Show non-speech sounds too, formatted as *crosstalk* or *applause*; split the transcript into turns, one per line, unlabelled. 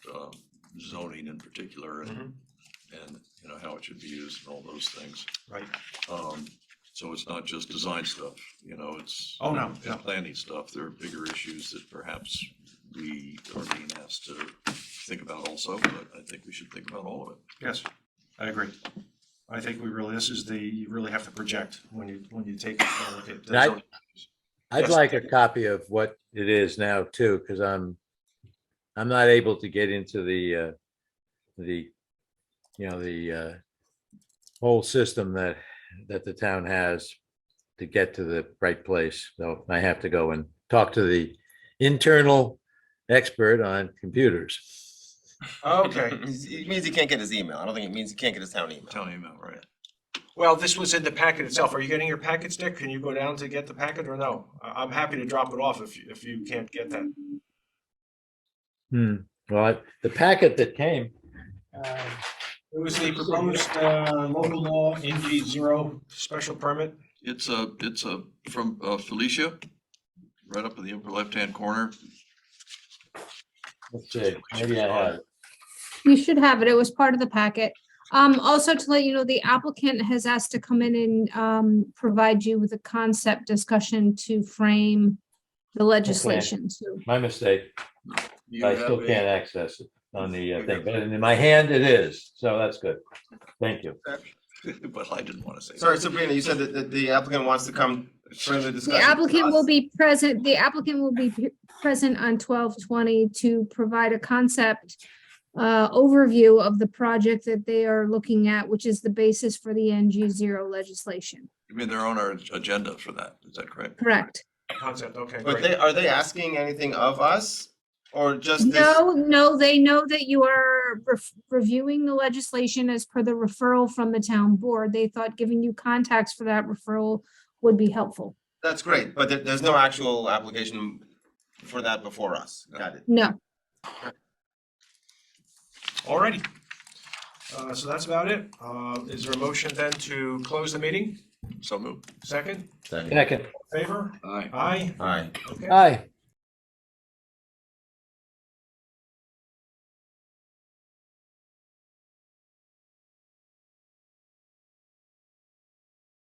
um, zoning in particular and,
Mhm.
and, you know, how it should be used and all those things.
Right.
Um, so it's not just design stuff, you know, it's.
Oh, no,
it's
no.
Planning stuff, there are bigger issues that perhaps we are being asked to think about also, but I think we should think about all of it.
Yes, I agree. I think we really, this is the, you really have to project when you, when you take uh, a look at. the
Right.
zoning.
I'd
Yes.
like a copy of what it is now too, because I'm, I'm not able to get into the, uh, the, you know, the, uh, whole system that, that the town has to get to the right place. So I have to go and talk to the internal expert on computers.
Okay,
It means he can't get his email. I don't think it means he can't get his town email.
Tell me about right.
well, this was in the packet itself. Are you getting your packets, Dick? Can you go down to get the packet or no? I, I'm happy to drop it off if, you- if you can't get that.
Hmm, well, I- the packet that came,
Uh, It was the proposed uh, local law NG zero special permit.
It's a, it's a, from uh, Felicia, right up in the upper left-hand corner.
let's see, maybe I have, it.
You should have it. It was part of the packet. Um, also to let you know, the applicant has asked to come in and, um, provide you with a concept discussion to frame the legislation. So
my mistake.
You
I
have
still
a-
can't access it on the uh, thing, but in my hand it is, so that's good. Thank you.
*laughs* But I didn't want to say. that.
Sorry, Sabrina, you said that, that the applicant wants to come further discuss.
the applicant will be present, the applicant will be p- present on twelve twenty to provide a concept uh, overview of the project that they are looking at, which is the basis for the NG zero legislation.
I mean, they're on our agenda for that, is that correct?
Correct?
Concept, okay,
But
great.
they, are they asking anything of us or just this?
No, no, they know that you are ref- reviewing the legislation as per the referral from the town board. They thought giving you contacts for that referral would be helpful.
That's great, but there, there's no actual application for that before us. Got it.
No,
Alrighty. Uh, so that's about it. Uh, is there a motion then to close the meeting?
So moved.
Second,
Second,
favor?
Aye.
Aye,
All right.
okay.
aye.